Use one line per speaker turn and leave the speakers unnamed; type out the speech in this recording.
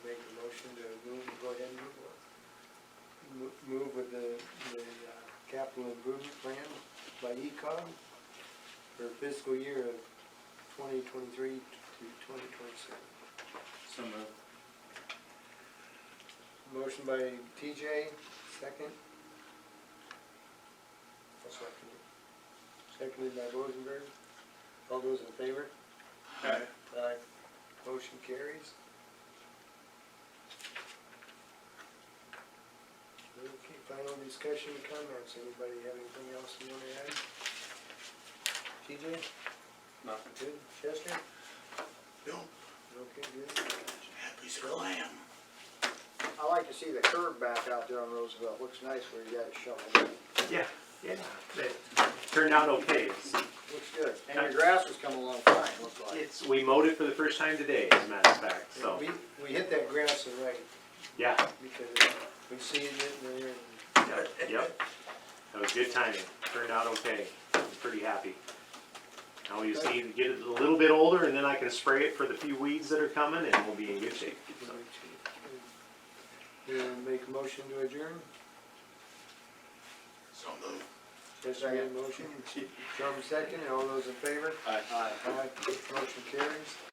move with the, the uh, capital improvement plan by ECOM for fiscal year of twenty twenty-three to twenty twenty-seven.
So moved.
Motion by TJ, second. I'll second it. Seconded by Rosenberg. All those in favor?
Aye.
Aye. Motion carries. Okay, final discussion comments. Anybody have anything else you want to add? TJ,
Nothing.
good. Chester?
No,
Okay, good.
happy as hell I am.
I like to see the curb back out there on Roosevelt, looks nice where you got it shoveled,
Yeah, yeah, it turned out okay. It's-
looks good, and your grass was coming along fine, looks like.
It's, we mowed it for the first time today, as a matter of fact, so,
We, we hit that grass and right
yeah,
because uh, we seeded it and there and
yeah, yep. That was good timing, turned out okay, I'm pretty happy. Now we just need to get it a little bit older and then I can spray it for the few weeds that are coming and we'll be in good shape. so.
We make a motion to adjourn?
So moved.
Yes, I motion. Drum second, all those in favor?
Aye.
Aye. Motion carries.